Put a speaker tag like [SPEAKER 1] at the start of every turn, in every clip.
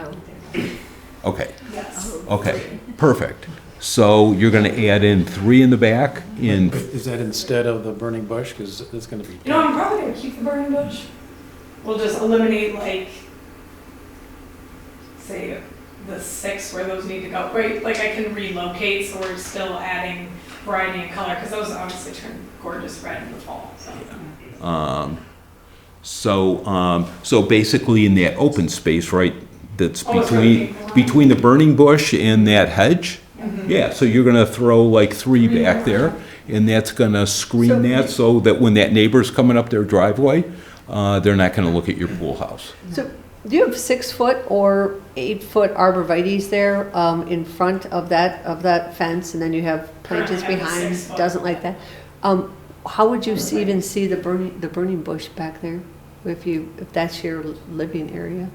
[SPEAKER 1] Oh, Okay,
[SPEAKER 2] Yes.
[SPEAKER 1] okay, perfect. So you're gonna add in three in the back in,
[SPEAKER 3] Is that instead of the burning bush? Because it's going to be.
[SPEAKER 2] You know, I'm probably gonna keep the burning bush. We'll just eliminate like, say, the six where those need to go, right? Like I can relocate, so we're still adding variety and color, because those obviously turn gorgeous red in the fall, so.
[SPEAKER 1] um, so, um, so basically in that open space, right? That's
[SPEAKER 2] Oh, it's
[SPEAKER 1] between,
[SPEAKER 2] right.
[SPEAKER 1] between the burning bush and that hedge?
[SPEAKER 2] Mhm.
[SPEAKER 1] Yeah, so you're gonna throw like three
[SPEAKER 2] Three
[SPEAKER 1] back
[SPEAKER 2] more.
[SPEAKER 1] there, and that's gonna
[SPEAKER 4] So-
[SPEAKER 1] screen that so that when that neighbor's coming up their driveway, uh, they're not gonna look at your pool house.
[SPEAKER 4] So do you have six-foot or eight-foot arborvitae's there um, in front of that, of that fence? And then you have planters
[SPEAKER 2] Currently have a
[SPEAKER 4] behind,
[SPEAKER 2] six-foot.
[SPEAKER 4] doesn't like that? Um, How would you see- even see the burning, the burning bush back there? If you, if that's your living area?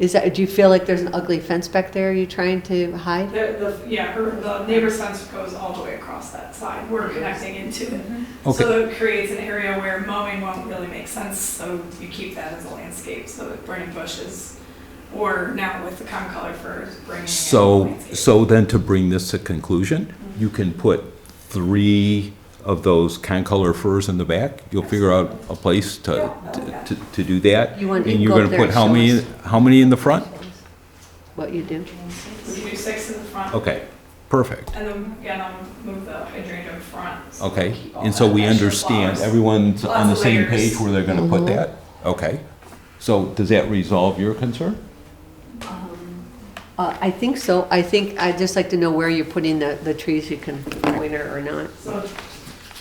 [SPEAKER 4] Is that, do you feel like there's an ugly fence back there you're trying to hide?
[SPEAKER 2] The, the, yeah, her, the neighbor's fence goes all the way across that side, we're connecting into it.
[SPEAKER 1] Okay,
[SPEAKER 2] So it creates an area where mowing won't really make sense, so you keep that as a landscape, so that burning bushes, or now with the Concolor firs, bringing in
[SPEAKER 1] so,
[SPEAKER 2] landscape.
[SPEAKER 1] so then to bring this to conclusion, you can put three of those concolor firs in the back. You'll figure out a place to, to, to do that.
[SPEAKER 4] You want
[SPEAKER 1] And
[SPEAKER 4] to
[SPEAKER 1] you're
[SPEAKER 4] go up
[SPEAKER 1] gonna
[SPEAKER 4] there
[SPEAKER 1] put
[SPEAKER 4] and
[SPEAKER 1] how
[SPEAKER 4] show
[SPEAKER 1] many,
[SPEAKER 4] us.
[SPEAKER 1] how many in the front?
[SPEAKER 4] What you do?
[SPEAKER 2] We can do six in the front.
[SPEAKER 1] Okay, perfect,
[SPEAKER 2] And then again, I'll move the hydrangea in front. so
[SPEAKER 1] okay.
[SPEAKER 2] keep all
[SPEAKER 1] And so
[SPEAKER 2] that
[SPEAKER 1] we
[SPEAKER 2] extra
[SPEAKER 1] understand,
[SPEAKER 2] flowers.
[SPEAKER 1] everyone's on the
[SPEAKER 2] Lots of
[SPEAKER 1] same
[SPEAKER 2] layers.
[SPEAKER 1] page where they're gonna put
[SPEAKER 4] Mhm.
[SPEAKER 1] that? Okay. So does that resolve your concern?
[SPEAKER 4] Uh, I think so. I think, I'd just like to know where you're putting the, the trees you can winter or not.
[SPEAKER 2] So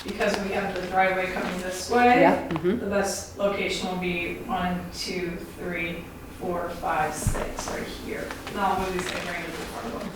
[SPEAKER 2] because we have the driveway coming this way.
[SPEAKER 4] Yeah, mhm.
[SPEAKER 2] The best location will be one, two, three, four, five, six, right here. And I'll move these hydrangeas in front of them.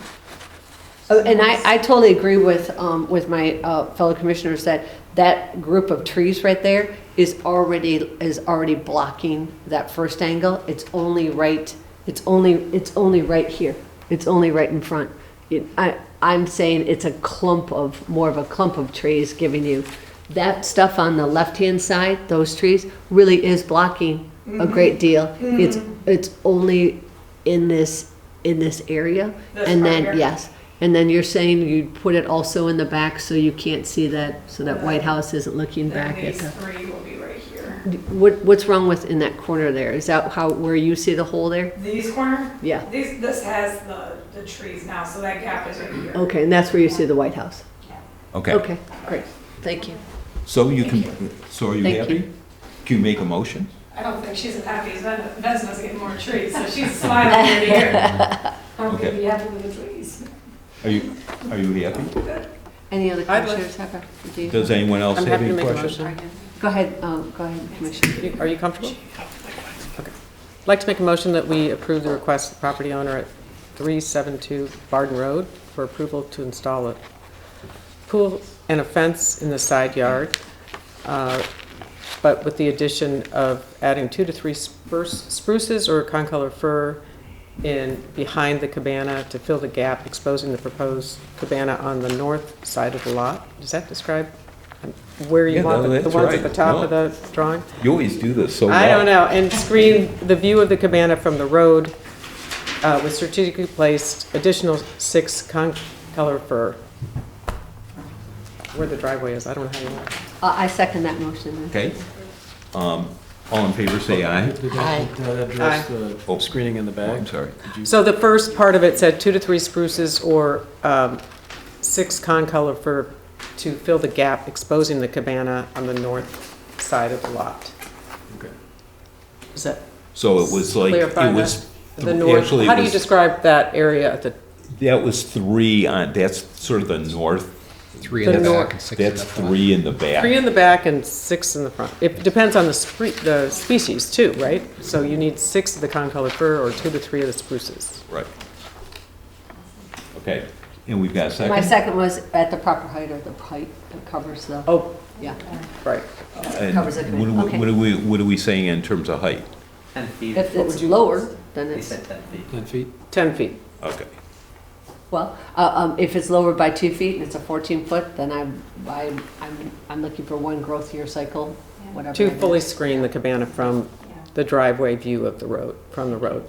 [SPEAKER 4] Oh, And I, I totally agree with, um, with my uh, fellow commissioners that that group of trees right there is already, is already blocking that first angle. It's only right, it's only, it's only right here. It's only right in front. It- I, I'm saying it's a clump of, more of a clump of trees giving you, that stuff on the left-hand side, those trees, really is blocking a great deal. It's, it's only in this, in this area.
[SPEAKER 2] This
[SPEAKER 4] And
[SPEAKER 2] part
[SPEAKER 4] then,
[SPEAKER 2] here?
[SPEAKER 4] yeah, Yes, and then you're saying you'd put it also in the back so you can't see that, so that White House isn't looking
[SPEAKER 2] Then
[SPEAKER 4] back at
[SPEAKER 2] these
[SPEAKER 4] the.
[SPEAKER 2] three will be right here.
[SPEAKER 4] What, what's wrong with, in that corner there? Is that how, where you see the hole there?
[SPEAKER 2] These corner,
[SPEAKER 4] Yeah,
[SPEAKER 2] these, this has the, the trees now, so that gap is right here.
[SPEAKER 4] okay, and that's where you see the White House?
[SPEAKER 1] Okay.
[SPEAKER 4] Okay, great, thank you.
[SPEAKER 1] So you can, so are you
[SPEAKER 4] Thank you.
[SPEAKER 1] happy? Can you make a motion?
[SPEAKER 2] I don't think she's as happy as Ven- Vesna's getting more trees, so she's smiling ear to ear.
[SPEAKER 1] I'm gonna be happy with the trees. Are you, are you happy?
[SPEAKER 4] Any other
[SPEAKER 5] I'd like-
[SPEAKER 4] commissioners have a, do you-
[SPEAKER 1] Does anyone else
[SPEAKER 5] I'm
[SPEAKER 1] have
[SPEAKER 5] happy to
[SPEAKER 1] any
[SPEAKER 5] make a
[SPEAKER 1] questions?
[SPEAKER 5] motion.
[SPEAKER 4] Go ahead, um, go ahead, Commissioner.
[SPEAKER 5] You- Are you comfortable? Okay. I'd like to make a motion that we approve the request of the property owner at 372 Barden Road for approval to install a pool and a fence in the side yard, uh, but with the addition of adding two to three spruce- spruces or concolor fir in, behind the cabana to fill the gap, exposing the proposed cabana on the north side of the lot. Does that describe where
[SPEAKER 1] Yeah,
[SPEAKER 5] you want
[SPEAKER 1] no,
[SPEAKER 5] the- the
[SPEAKER 1] that's
[SPEAKER 5] ones at
[SPEAKER 1] right.
[SPEAKER 5] the top of
[SPEAKER 1] No.
[SPEAKER 5] the drawing?
[SPEAKER 1] You always do this so well.
[SPEAKER 5] I don't know, and screen the view of the cabana from the road uh, with strategically placed additional six con, color fir. Where the driveway is, I don't know how you want.
[SPEAKER 4] Uh, I second that motion then.
[SPEAKER 1] Okay. Um, all in favor, say aye.
[SPEAKER 3] Did that did that address the screening in the
[SPEAKER 1] Oh,
[SPEAKER 3] back?
[SPEAKER 1] I'm sorry.
[SPEAKER 5] So the first part of it said two to three spruces or um, six con color fir to fill the gap exposing the cabana on the north side of the lot.
[SPEAKER 3] Okay.
[SPEAKER 5] Is that
[SPEAKER 1] So it was like,
[SPEAKER 5] clear by
[SPEAKER 1] it
[SPEAKER 5] the-
[SPEAKER 1] was,
[SPEAKER 5] the
[SPEAKER 1] th-
[SPEAKER 5] north?
[SPEAKER 1] actually,
[SPEAKER 5] How
[SPEAKER 1] it
[SPEAKER 5] do you
[SPEAKER 1] was,
[SPEAKER 5] describe that area at the,
[SPEAKER 1] that was three on, that's sort of the north.
[SPEAKER 6] Three
[SPEAKER 5] The
[SPEAKER 6] in the
[SPEAKER 5] nor-
[SPEAKER 6] back and six in the
[SPEAKER 1] That's
[SPEAKER 6] front.
[SPEAKER 1] three in the back.
[SPEAKER 5] Three in the back and six in the front. It depends on the spre- the species too, right? So you need six of the concolor fir or two to three of the spruces.
[SPEAKER 1] Right. Okay, and we've got a
[SPEAKER 4] My
[SPEAKER 1] second?
[SPEAKER 4] second was at the proper height or the height that covers the,
[SPEAKER 5] Oh,
[SPEAKER 4] yeah,
[SPEAKER 5] right.
[SPEAKER 1] And
[SPEAKER 4] covers it,
[SPEAKER 1] What are we-
[SPEAKER 4] okay.
[SPEAKER 1] what are we, what are we saying in terms of height?
[SPEAKER 7] 10 feet.
[SPEAKER 4] if it's lower, then
[SPEAKER 7] They
[SPEAKER 4] it's.
[SPEAKER 7] said 10 feet.
[SPEAKER 1] Oh.
[SPEAKER 3] Ten feet?
[SPEAKER 5] Ten feet.
[SPEAKER 1] Okay.
[SPEAKER 4] Well, uh, um, if it's lowered by two feet and it's a fourteen foot, then I'm, I'm, I'm, I'm looking for one growth year cycle, whatever.
[SPEAKER 5] To
[SPEAKER 4] it is.
[SPEAKER 5] fully screen the cabana from the driveway view of the road, from the road.